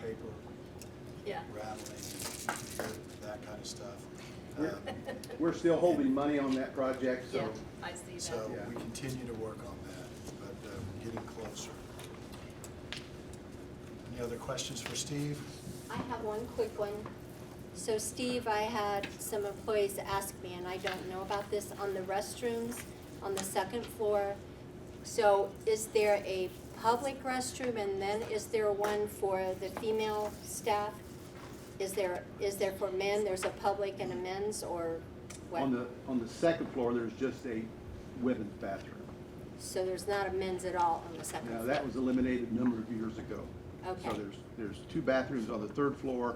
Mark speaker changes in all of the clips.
Speaker 1: paper
Speaker 2: Yeah.
Speaker 1: rattling, and that kind of stuff.
Speaker 3: We're-
Speaker 1: Um,
Speaker 3: We're still holding money on that project,
Speaker 2: Yeah,
Speaker 3: so
Speaker 2: I see that.
Speaker 1: So
Speaker 3: Yeah.
Speaker 1: we continue to work on that, but uh, we're getting closer. Any other questions for Steve?
Speaker 4: I have one quick one. So Steve, I had some employees ask me, and I don't know about this, on the restrooms on the second floor. So is there a public restroom and then is there one for the female staff? Is there, is there for men, there's a public and a men's or what?
Speaker 3: on the, on the second floor, there's just a women's bathroom.
Speaker 4: So there's not a men's at all on the second floor?
Speaker 3: Now, that was eliminated a number of years ago. So
Speaker 4: Okay.
Speaker 3: there's, there's two bathrooms on the third floor,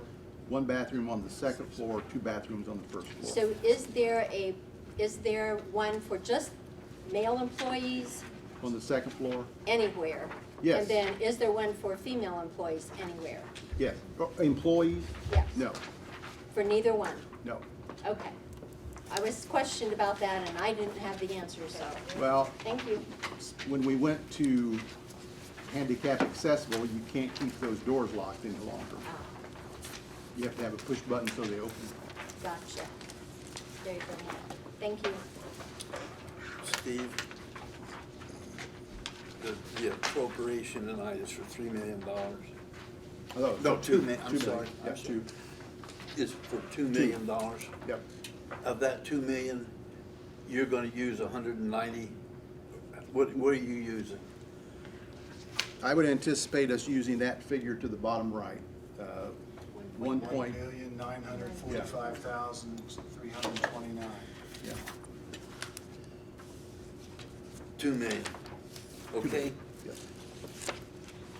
Speaker 3: one bathroom on the second floor, two bathrooms on the first floor.
Speaker 4: So is there a, is there one for just male employees?
Speaker 3: On the second floor,
Speaker 4: anywhere?
Speaker 3: Yes.
Speaker 4: And then, is there one for female employees anywhere?
Speaker 3: yes. Oh, Employees?
Speaker 4: Yes.
Speaker 3: No,
Speaker 4: For neither one?
Speaker 3: no.
Speaker 4: Okay. I was questioned about that, and I didn't have the answer, so,
Speaker 3: Well,
Speaker 4: thank you.
Speaker 3: when we went to handicap accessible, you can't keep those doors locked any longer.
Speaker 4: Ah,
Speaker 3: You have to have a push button so they open.
Speaker 4: Gotcha. There you go. Thank you.
Speaker 5: Steve, the- the appropriation tonight is for three million dollars.
Speaker 3: Although-
Speaker 5: Oh, No, two mi- I'm
Speaker 3: million.
Speaker 5: sorry, I'm
Speaker 3: Yeah,
Speaker 5: sorry.
Speaker 3: two,
Speaker 5: Is for two million dollars.
Speaker 3: yep,
Speaker 5: Of that two million, you're gonna use a hundred and ninety, what, what are you using?
Speaker 3: I would anticipate us using that figure to the bottom right, uh, one
Speaker 1: One
Speaker 3: point,
Speaker 1: million, nine hundred forty-five thousand, three hundred and twenty-nine.
Speaker 3: yeah,
Speaker 5: Two million, okay?
Speaker 3: yeah.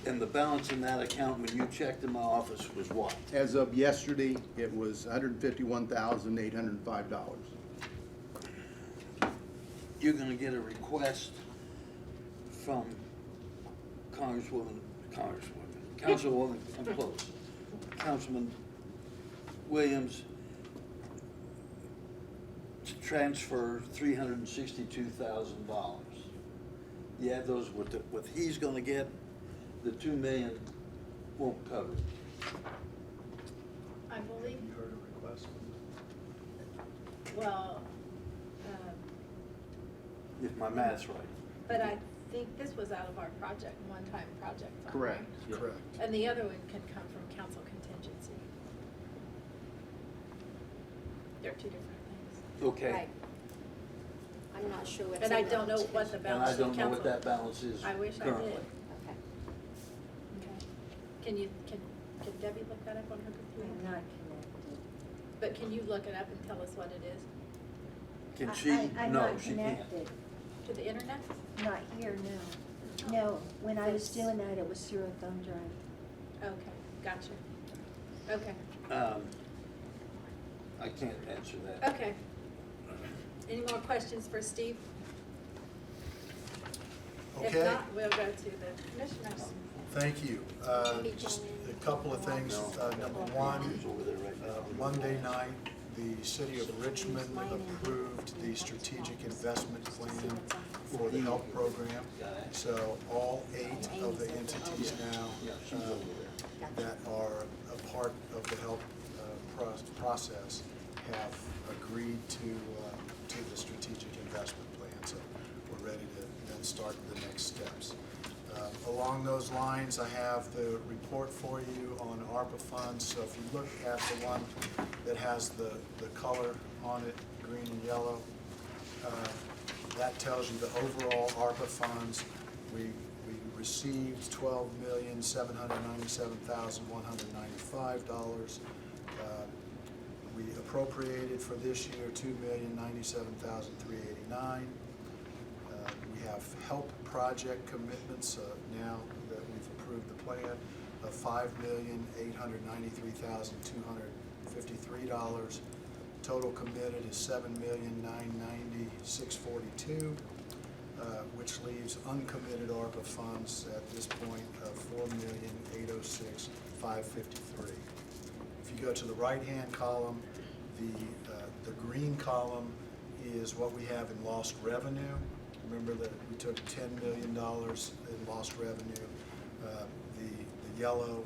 Speaker 5: And the balance in that account when you checked in my office was what?
Speaker 3: As of yesterday, it was hundred and fifty-one thousand, eight hundred and five dollars.
Speaker 5: You're gonna get a request from Congresswoman, Congresswoman, Councilwoman, I'm close, Councilman Williams to transfer three hundred and sixty-two thousand dollars. You add those with, the- what he's gonna get, the two million won't cover it.
Speaker 2: I believe,
Speaker 1: You heard a request.
Speaker 2: well, um,
Speaker 5: if my math's right.
Speaker 2: but I think this was out of our project, one-time project fund.
Speaker 3: Correct.
Speaker 2: right?
Speaker 1: Correct.
Speaker 2: And the other one can come from council contingency. They're two different things.
Speaker 5: Okay.
Speaker 4: Right. I'm not sure what's in
Speaker 2: But I
Speaker 4: that
Speaker 2: don't know
Speaker 4: one.
Speaker 2: what the
Speaker 5: And I
Speaker 2: balance of
Speaker 5: don't know
Speaker 2: council.
Speaker 5: what that balance is
Speaker 2: I
Speaker 5: currently.
Speaker 2: wish I did.
Speaker 4: Okay.
Speaker 2: Okay. Can you, can, can Debbie look that up on her computer?
Speaker 6: I'm not connected.
Speaker 2: But can you look it up and tell us what it is
Speaker 5: Can
Speaker 6: I-
Speaker 5: she?
Speaker 6: I- I'm
Speaker 5: No,
Speaker 6: not
Speaker 5: she can't.
Speaker 6: connected.
Speaker 2: to the internet?
Speaker 6: Not here, no. No, when I was doing that, it was through a thumb drive.
Speaker 2: Okay, gotcha. Okay,
Speaker 5: Um, I can't answer that.
Speaker 2: okay. Any more questions for Steve? If
Speaker 1: Okay,
Speaker 2: not, we'll go to the commissioners.
Speaker 1: thank you. Uh, Just a couple of things.
Speaker 5: No.
Speaker 1: Uh, Number one,
Speaker 5: It's over there right
Speaker 1: Uh,
Speaker 5: now.
Speaker 1: Monday night, the city of Richmond approved the strategic investment plan for the health program. So all eight of the entities
Speaker 5: Yeah,
Speaker 1: now
Speaker 5: she's over
Speaker 1: uh,
Speaker 5: there.
Speaker 1: that are a part of the health uh, pros- process have agreed to, uh, to the strategic investment plan. So we're ready to then start the next steps. Uh, Along those lines, I have the report for you on ARPA funds. So if you look at the one that has the, the color on it, green and yellow, uh, that tells you the overall ARPA funds. We, we received twelve million, seven hundred ninety-seven thousand, one hundred ninety-five dollars. Uh, We appropriated for this year two million, ninety-seven thousand, three eighty-nine. Uh, We have help project commitments uh, now that we've approved the plan of five million, eight hundred ninety-three thousand, two hundred fifty-three dollars. Total committed is seven million, nine ninety, six forty-two, uh, which leaves uncommitted ARPA funds at this point of four million, eight oh six, five fifty-three. If you go to the right-hand column, the, uh, the green column is what we have in lost revenue. Remember that we took ten million dollars in lost revenue. Uh, The, the yellow